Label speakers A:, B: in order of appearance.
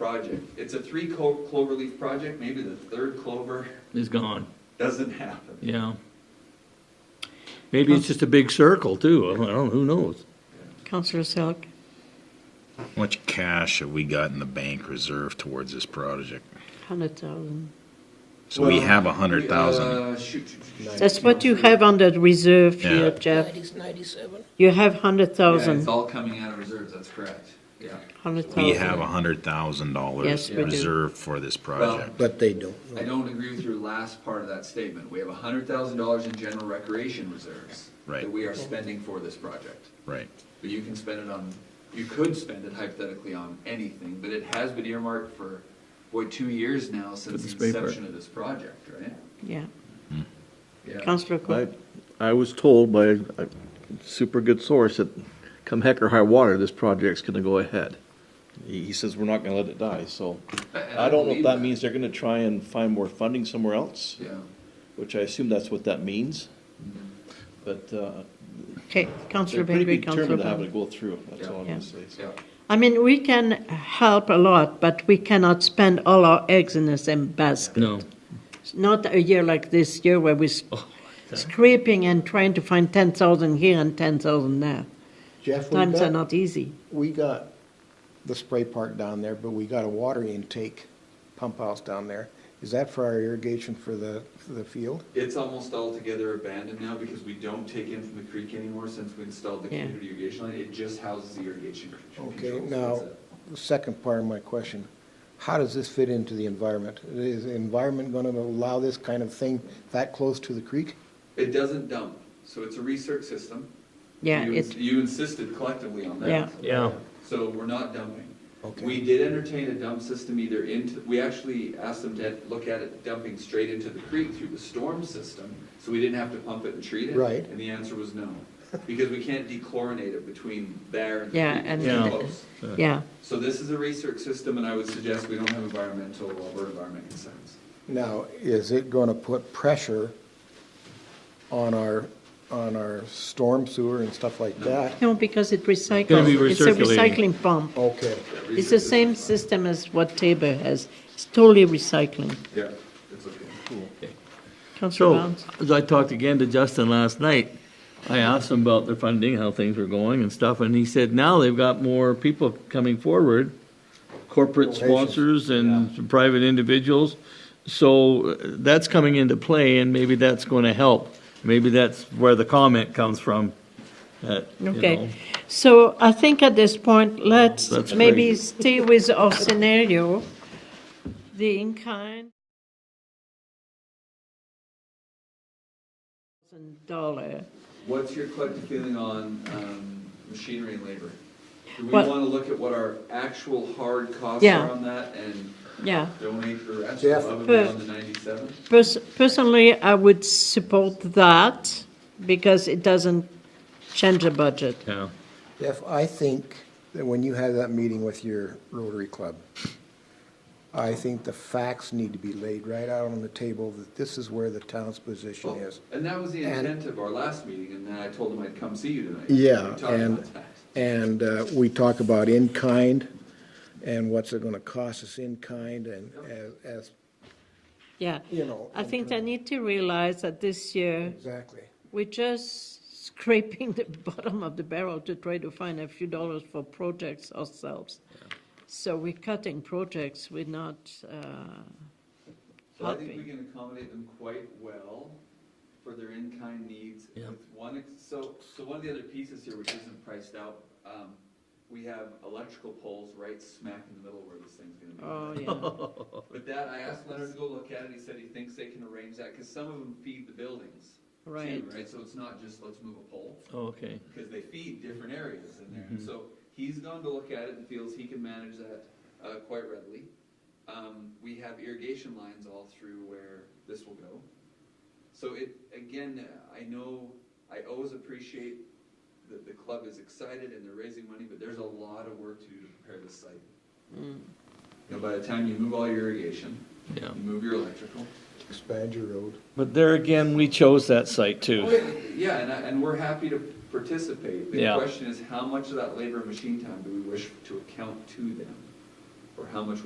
A: project. It's a three clo- clover leaf project, maybe the third clover
B: is gone,
A: doesn't happen.
B: yeah. Maybe it's just a big circle too, I don't, who knows?
C: Counselor Silk.
D: How much cash have we got in the bank reserved towards this project?
C: Hundred thousand.
D: So we
E: Well,
D: have a hundred thousand.
A: Uh, shoot, shoot, shoot, shoot.
C: That's what you have on that reserve here,
D: Yeah.
C: Jeff.
F: 97.
C: You have hundred
A: Yeah,
C: thousand.
A: it's all coming out of reserves, that's correct, yeah.
C: Hundred thousand.
D: We have a hundred thousand
C: Yes,
D: dollars
C: we do.
D: reserved for this project.
E: But they don't.
A: I don't agree with your last part of that statement. We have hundred thousand dollars in general recreation reserves
D: Right.
A: that we are spending for this project.
D: Right,
A: But you can spend it on, you could spend it hypothetically on anything, but it has been earmarked for, what, two years now since
B: this
A: the
B: paper.
A: inception of this project, right?
C: Yeah.
A: Yeah.
C: Counselor
G: I,
C: Cook.
G: I was told by a super good source that come heck or high water, this project's gonna go ahead. He, he says we're not gonna let it die, so
A: And
G: I don't know
A: believe
G: if that means they're gonna try and find more funding somewhere else,
A: Yeah.
G: which I assume that's what that means. But, uh,
C: Okay,
G: they're
C: Counselor
G: pretty
C: Bengry, Counselor
G: determined to have
C: Brown.
G: it go through, that's all I'm
C: Yeah.
G: gonna say.
A: Yeah,
C: I mean, we can help a lot, but we cannot spend all our eggs in the same basket.
B: No,
C: Not a year like this year where we're scraping and trying to find ten thousand here and ten thousand there.
E: Jeff, we
C: Times are
E: got,
C: not easy.
E: we got the spray park down there, but we got a water intake pump house down there. Is that for our irrigation for the, for the field?
A: it's almost altogether abandoned now because we don't take in from the creek anymore since we installed the
C: Yeah.
A: community irrigation line. It just houses the irrigation. control,
E: Okay,
A: so
E: now,
A: that's it.
E: the second part of my question, how does this fit into the environment? Is the environment gonna allow this kind of thing that close to the creek?
A: It doesn't dump, so it's a recirc system.
C: Yeah,
A: You ins-
C: it-
A: You insisted collectively on that.
C: Yeah.
B: yeah,
A: So we're not dumping.
E: Okay.
A: We did entertain a dump system either into, we actually asked them to look at it dumping straight into the creek through the storm system, so we didn't have to pump it and treat it.
E: Right.
A: And the answer was no, because we can't dechlorinate it between there and the
C: Yeah,
A: creek.
C: and
A: It's
B: Yeah.
A: close.
C: Yeah,
A: So this is a research system, and I would suggest we don't have environmental, well, we're environment concerns.
E: Now, is it gonna put pressure on our, on our storm sewer and stuff like that?
C: no, because it recycles.
B: gonna be
C: It's a
B: recirculating.
C: recycling pump.
E: Okay,
A: Yeah,
C: It's the
A: research
C: same system as what Tabor has. It's totally recycling.
A: Yeah, it's okay.
C: Councillor
B: so,
C: Barnes?
B: as I talked again to Justin last night, I asked him about their funding, how things were going and stuff, and he said now they've got more people coming forward, corporate sponsors and some private individuals, so uh, that's coming into play, and maybe that's gonna help. Maybe that's where the comment comes from, that, you know,
C: Okay. So I think at this point, let's
B: That's
C: maybe
B: great.
C: stay with our scenario, the in-kind. Dollar.
A: What's your collective feeling on um, machinery and labor? Do we want
C: Well-
A: to look at what our actual hard costs
C: Yeah.
A: are on that and
C: Yeah.
A: donate the rest
E: Jeff.
A: above and beyond the 97?
C: Pers- Personally, I would support that because it doesn't change the budget.
B: yeah.
E: Jeff, I think that when you have that meeting with your Rotary Club, I think the facts need to be laid right out on the table that this is where the town's position
A: Well,
E: is.
A: And that was the
E: And-
A: intent of our last meeting, and then I told them I'd come see you tonight. We
E: Yeah,
A: talked
E: and,
A: about that.
E: and uh, we talk about in-kind and what's it gonna cost us in-kind and as, as,
C: Yeah.
E: you know.
C: I
E: in
C: think they
E: terms-
C: need to realize that this year,
E: Exactly.
C: We're just scraping the bottom of the barrel to try to find a few dollars for projects ourselves. So we're cutting projects, we're not, uh,
A: So I think we
C: helping.
A: can accommodate them quite well for their in-kind needs.
B: Yeah.
A: With one, ex- so, so one of the other pieces here, which isn't priced out, um, we have electrical poles right smack in the middle where this thing's gonna be.
C: oh,
A: lit.
C: yeah.
A: But that, I asked Leonard to go look at it, he said he thinks they can arrange that, because some of them feed the buildings. too,
C: Right.
A: Right, so it's not just, let's move a pole,
B: Okay,
A: because they feed different areas in there. And So he's gone to look at it and feels he can manage that uh, quite readily. Um, We have irrigation lines all through where this will go. So it, again, I know, I always appreciate that the club is excited and they're raising money, but there's a lot of work to do to prepare this site. You know, by the time you move all your irrigation,
B: yeah.
A: you move your electrical.
E: Expand your road.
B: But there again, we chose that site too.
A: Oh, Yeah, and, I- and we're happy to participate. The
B: Yeah.
A: question is, how much of that labor and machine time do we wish to account to them? Or how much will